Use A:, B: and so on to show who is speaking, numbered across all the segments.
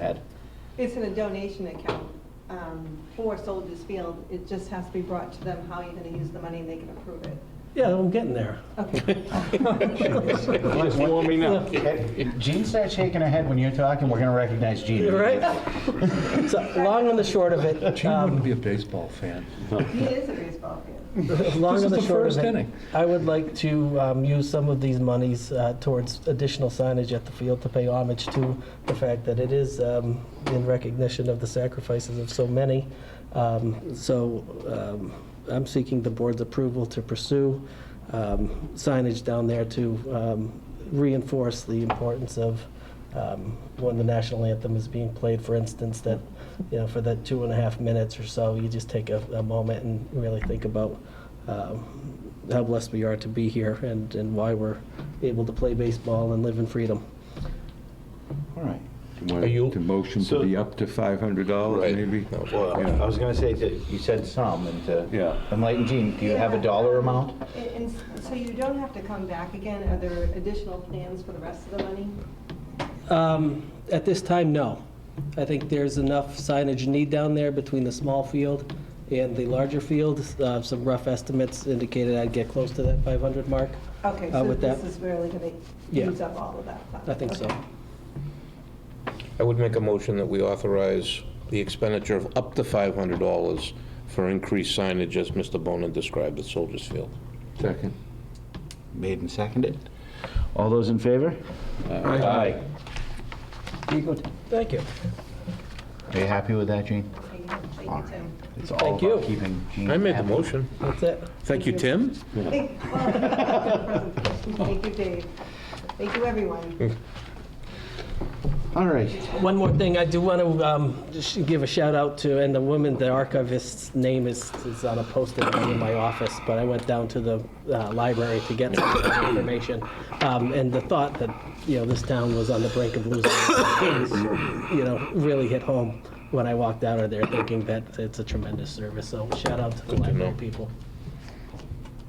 A: Ed?
B: It's in a donation account um, for Soldiers Field. It just has to be brought to them how you're going to use the money and they can approve it.
C: Yeah, I'm getting there.
B: Okay.
D: Just warm me up.
E: Jean starts shaking her head when you're talking, we're going to recognize Jean.
C: You're right. So, long and the short of it,
F: Gene
C: um,
F: wouldn't be a baseball fan.
B: He is a baseball fan.
C: long
F: This
C: and
F: is
C: the
F: the
C: short
F: first
C: of it,
F: inning.
C: I would like to um, use some of these monies uh, towards additional signage at the field to pay homage to the fact that it is um, in recognition of the sacrifices of so many. Um, So um, I'm seeking the board's approval to pursue um, signage down there to um, reinforce the importance of um, when the national anthem is being played, for instance, that, you know, for that two and a half minutes or so, you just take a, a moment and really think about um, how blessed we are to be here and, and why we're able to play baseball and live in freedom.
E: All right.
D: Are you-
F: The motion to
E: So-
F: be up to $500
D: Right.
F: maybe?
E: Well, I was going to say that you said some, and
F: Yeah.
E: to enlighten Jean, do you have a dollar amount?
B: And- And s- so you don't have to come back again? Are there additional plans for the rest of the money?
C: Um, At this time, no. I think there's enough signage need down there between the small field and the larger field. Uh, Some rough estimates indicated I'd get close to that 500 mark.
B: Okay,
C: Uh,
B: so
C: with
B: this
C: that-
B: is really going to
C: Yeah.
B: use up all of that fund?
C: I think so.
B: Okay.
D: I would make a motion that we authorize the expenditure of up to $500 for increased signage, as Mr. Bonin described at Soldiers Field.
F: Second.
E: Made and seconded. All those in favor? Aye.
C: Thank you.
E: Are you happy with that, Jean?
B: Thank you. Thank
E: All
B: you,
E: right.
B: Tim.
E: It's all
C: Thank you.
E: about keeping Jean
D: I made the
E: happy.
D: motion.
C: That's it.
D: Thank you, Tim.
B: Thank well, thank you, Dave. Thank you, everyone.
E: All right.
C: One more thing, I do want to um, just give a shout out to, and the woman, the archivist's name is, is on a post-it note in my office, but I went down to the uh, library to get some of that information. Um, And the thought that, you know, this town was on the brink of losing, its place, you know, really hit home when I walked out of there thinking that it's a tremendous service. So shout out to the library people.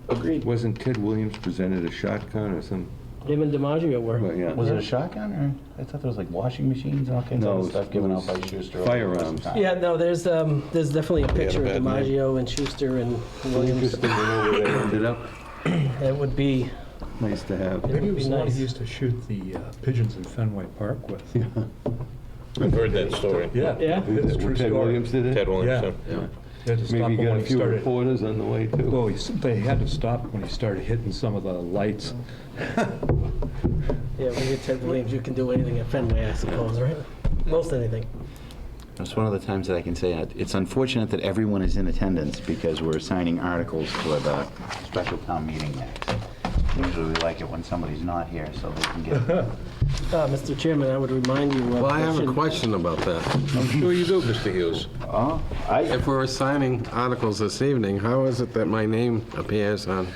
A: Agreed.
F: Wasn't Ted Williams presented a shotgun or some,
C: Him and DiMaggio were,
F: but yeah.
E: Was it a shotgun, or, I thought there was like washing machines and all kinds of other
F: No, it was-
E: stuff given out by
F: it was
E: Schuster.
F: firearms.
C: yeah, no, there's, um, there's definitely a
D: a
C: picture of
D: bad night.
C: DiMaggio and Schuster and Williams.
F: Interesting to know where they ended up.
C: It would be,
F: Nice to
C: it
F: have.
C: would
F: It
C: be
G: Maybe it was the one
C: nice.
G: he used to shoot the uh, pigeons in Fenway Park with.
D: I've heard that story.
G: Yeah.
C: Yeah.
G: It's a true
F: Ted
G: story.
F: Williams did
D: Ted
F: it?
D: Williamson.
F: Yeah.
G: They had to stop
F: Maybe
G: him
F: you got
G: when
F: a
G: he
F: few
G: started.
F: reporters on the way too.
G: Well, he s- they had to stop when he started hitting some of the lights.
C: Yeah, when you're Ted Williams, you can do anything at Fenway, I suppose, right? Most anything.
E: That's one of the times that I can say it. It's unfortunate that everyone is in attendance because we're assigning articles for the special town meeting next. Usually we like it when somebody's not here so they can get.
C: Uh, Mr. Chairman, I would remind you.
H: Well, I have a question Uh, about that.
D: I'm sure you do, Mr. Hughes.
E: Oh, I,
H: If we're assigning articles this evening, how is it that my name appears on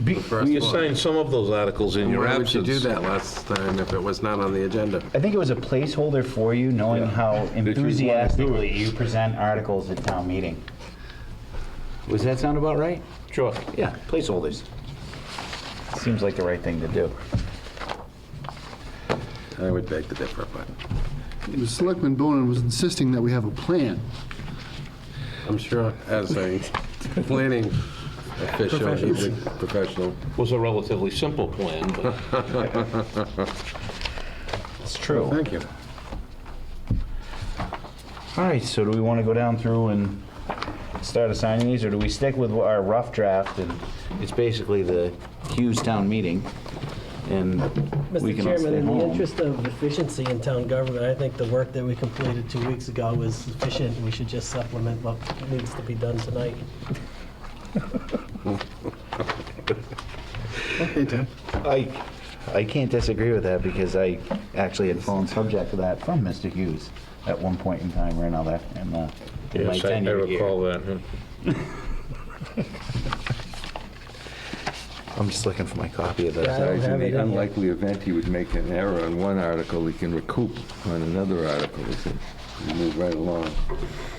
H: the first
D: We
H: one?
D: assigned some of those articles in your
H: Why would you
D: absence.
H: do that last time if it was not on the agenda?
E: I think it was a placeholder for you, knowing how enthusiastically you present articles at town meeting. Was that sound about right?
D: Sure.
E: Yeah, placeholders. Seems like the right thing to do.
H: I would beg to differ, but
I: Selectman Bonin was insisting that we have a plan.
H: I'm sure as a planning official, he's a professional.
D: Was a relatively simple plan, but
E: It's true.
H: Thank you.
E: All right, so do we want to go down through and start assigning these, or do we stick with our rough draft? And it's basically the Hughes Town meeting, and we
C: Mr.
E: can all
C: Chairman,
E: stay
C: in the
E: home.
C: interest of efficiency in town government, I think the work that we completed two weeks ago was sufficient. We should just supplement what needs to be done tonight.
E: I, I can't disagree with that, because I actually had fallen subject to that from Mr. Hughes at one point in time or another, in the, in my
D: yes, I I
E: tenure here.
D: recall that. huh?
E: I'm just looking for my copy of
C: Yeah, I don't
E: this.
F: Besides, in
C: have it in
F: the
C: here.
F: unlikely event he would make an error on one article, he can recoup on another article. He said, "We Move right along.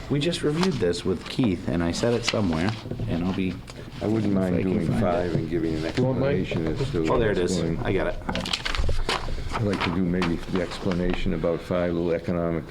E: We just reviewed this with Keith, and I said it somewhere, and I'll be,
F: I wouldn't
E: If I
F: mind
E: can
F: doing
E: find it.
F: five and giving an
D: want mine?
F: explanation as to.
E: oh, there it
F: what's
E: is,
F: going-
E: I got it.
F: I'd like to do maybe the explanation about five, little economic